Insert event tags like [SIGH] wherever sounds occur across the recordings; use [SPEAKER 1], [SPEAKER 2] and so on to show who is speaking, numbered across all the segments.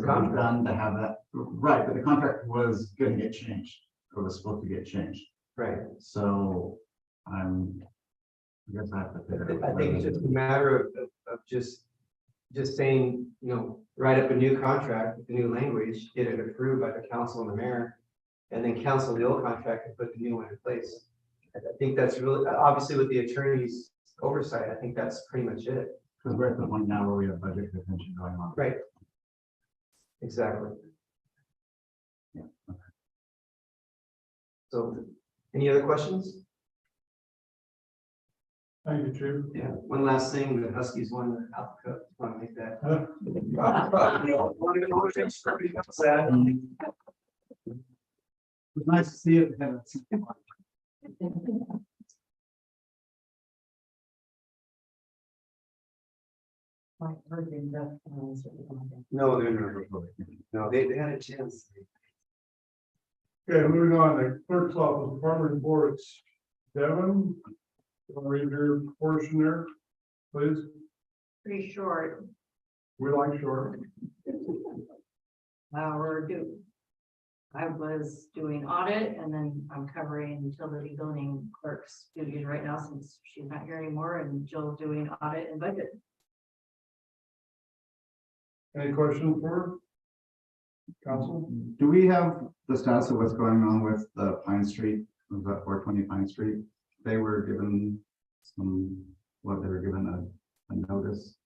[SPEAKER 1] The contract done to have that, right, but the contract was gonna get changed, or was supposed to get changed,
[SPEAKER 2] Right,
[SPEAKER 1] so I'm. I guess I have to figure out.
[SPEAKER 2] I think it's just a matter of, of, of just, just saying, you know, write up a new contract with the new language, get it approved by the council and the mayor. And then cancel the old contract and put the new one in place. I I think that's really, obviously with the attorney's oversight, I think that's pretty much it.
[SPEAKER 1] Because we're at the point now where we have budget contention going on.
[SPEAKER 2] Exactly.
[SPEAKER 1] Yeah,
[SPEAKER 2] So, any other questions?
[SPEAKER 3] Thank you, Chair.
[SPEAKER 2] Yeah, one last thing, the Huskies won the Alpha Cup, just want to make that. [LAUGHS]
[SPEAKER 1] It was nice to see you. Kevin.
[SPEAKER 4] My urban death panels are going
[SPEAKER 2] No, they're not. No, they, they had a chance.
[SPEAKER 3] Okay, moving on, the clerk's office, farmer's board, it's Devon. Wanna Read your portion there, please.
[SPEAKER 4] Pretty short,
[SPEAKER 3] We like short.
[SPEAKER 4] hour due. I was doing audit and then I'm covering utility building clerk's duties right now since she's not here anymore and Jill's doing audit and budget.
[SPEAKER 3] Any questions for her? council?
[SPEAKER 1] Mm-hmm. Do we have the status of what's going on with the Pine Street, was that four twenty Pine Street? They were given some, what, they were given a, a notice?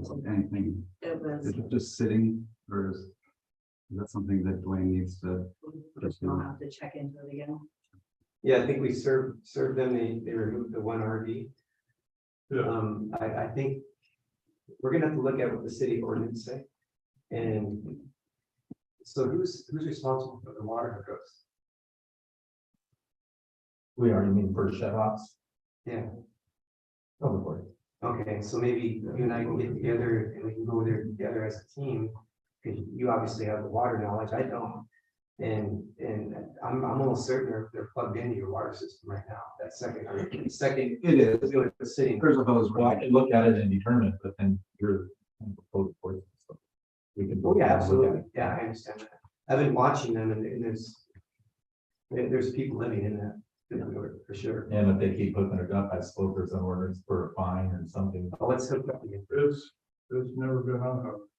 [SPEAKER 1] Is Anything,
[SPEAKER 4] It
[SPEAKER 1] is
[SPEAKER 4] was,
[SPEAKER 1] it just sitting, or is, is that something that Dwayne needs to,
[SPEAKER 4] I'll have to check into it again.
[SPEAKER 2] Yeah, I think we served, served them, they, they removed the one RV.
[SPEAKER 3] Yeah.
[SPEAKER 2] Um, I, I think we're gonna have to look at what the city ordinance say. And so who's, who's responsible for the water hookups?
[SPEAKER 5] We already mean for shut offs.
[SPEAKER 2] Yeah.
[SPEAKER 5] Of course.
[SPEAKER 2] Okay, so maybe you and I can get together and we can go there together as a team, because you obviously have the water knowledge, I don't. And, and I'm, I'm almost certain they're, they're plugged into your water system right now, that second, or second,
[SPEAKER 1] it is,
[SPEAKER 2] is doing the city.
[SPEAKER 1] there's a hose.
[SPEAKER 5] Well, I could look at it and determine, it, but then you're. kind of opposed for it, so We can.
[SPEAKER 2] Oh, yeah, absolutely, yeah, I understand that, I've been watching them and and there's. there- there's people living in that, for sure,
[SPEAKER 5] And if they keep hooking it up, I suppose there's an ordinance for a fine or something.
[SPEAKER 2] Oh, let's hook up again,
[SPEAKER 3] It's, it's never been unhooked.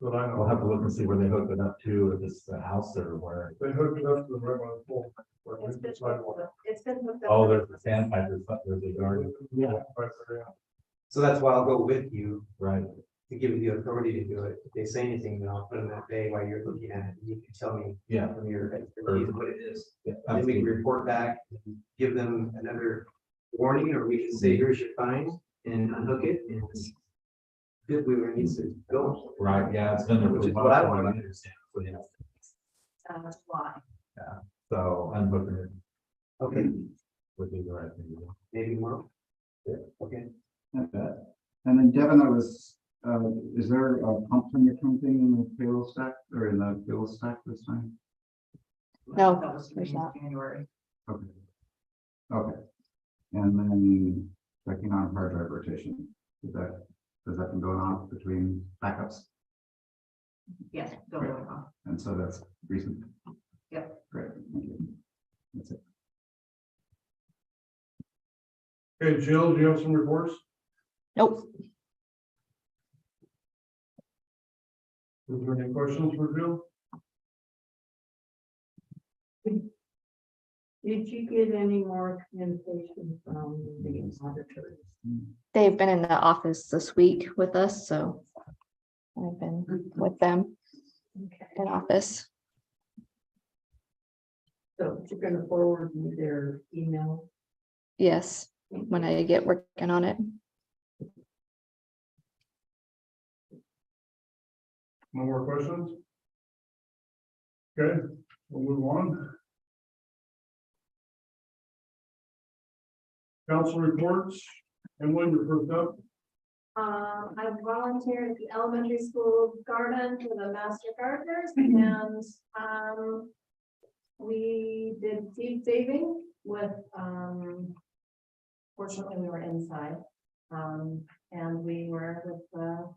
[SPEAKER 3] But I
[SPEAKER 5] I'll
[SPEAKER 3] know,
[SPEAKER 5] have to look and see where they hook it up to, if it's the house or where.
[SPEAKER 3] they hooked it up to the right one, pole, where we
[SPEAKER 4] It's been,
[SPEAKER 3] sidewalk.
[SPEAKER 4] it's been hooked up.
[SPEAKER 5] Oh, there's a sandpiper, there's a- there's a yard,
[SPEAKER 3] Yeah. Right there, yeah.
[SPEAKER 2] so that's why I'll go with you,
[SPEAKER 5] right?
[SPEAKER 2] to give you the authority to do it, if they say anything, then I'll put them that day while you're looking at it, and you can tell me
[SPEAKER 5] Yeah.
[SPEAKER 2] from your expertise what it is.
[SPEAKER 5] yeah,
[SPEAKER 2] And then Uh, we can
[SPEAKER 5] absolutely.
[SPEAKER 2] report back, and give them another warning, or we can say, here's your fine, and unhook it, and it's good, we were needs to go.
[SPEAKER 5] Right, yeah, it's been there.
[SPEAKER 2] Which
[SPEAKER 5] for a
[SPEAKER 2] is what I
[SPEAKER 5] while,
[SPEAKER 2] wanted.
[SPEAKER 5] understand, so yeah,
[SPEAKER 4] Uh, why?
[SPEAKER 5] So unhooking it
[SPEAKER 2] Okay,
[SPEAKER 5] would be the right thing to do.
[SPEAKER 2] maybe more.
[SPEAKER 5] Yeah.
[SPEAKER 2] Okay,
[SPEAKER 1] Not bad. And then Devin, I was, uh, is there a pump thing or something in the payroll stack or in the fuel stack this time?
[SPEAKER 6] No,
[SPEAKER 4] That was
[SPEAKER 6] there's not.
[SPEAKER 4] January.
[SPEAKER 1] Okay. Okay. And then checking on hard drive rotation, is that, has that been going on between backups?
[SPEAKER 4] Yes, don't worry about it.
[SPEAKER 1] And so that's recent.
[SPEAKER 4] Yep.
[SPEAKER 1] Great, thank you. That's it.
[SPEAKER 3] Okay, Jill, do you have some reports?
[SPEAKER 6] Nope,
[SPEAKER 3] Is there any questions for Jill?
[SPEAKER 4] Did you get any more communication from the auditors?
[SPEAKER 6] they've been in the office this week with us, so I've been with them
[SPEAKER 4] Okay,
[SPEAKER 6] in office.
[SPEAKER 4] so you're gonna forward me their email?
[SPEAKER 6] Yes, when I get working on it.
[SPEAKER 3] No more questions? Okay, we'll move on. Council reports, Emily, you're first up.
[SPEAKER 7] Um, I volunteered at the elementary school garden for the master gardeners
[SPEAKER 4] Mhm.
[SPEAKER 7] and, um. We did seed saving with, um. Fortunately, we were inside, um, and we were with the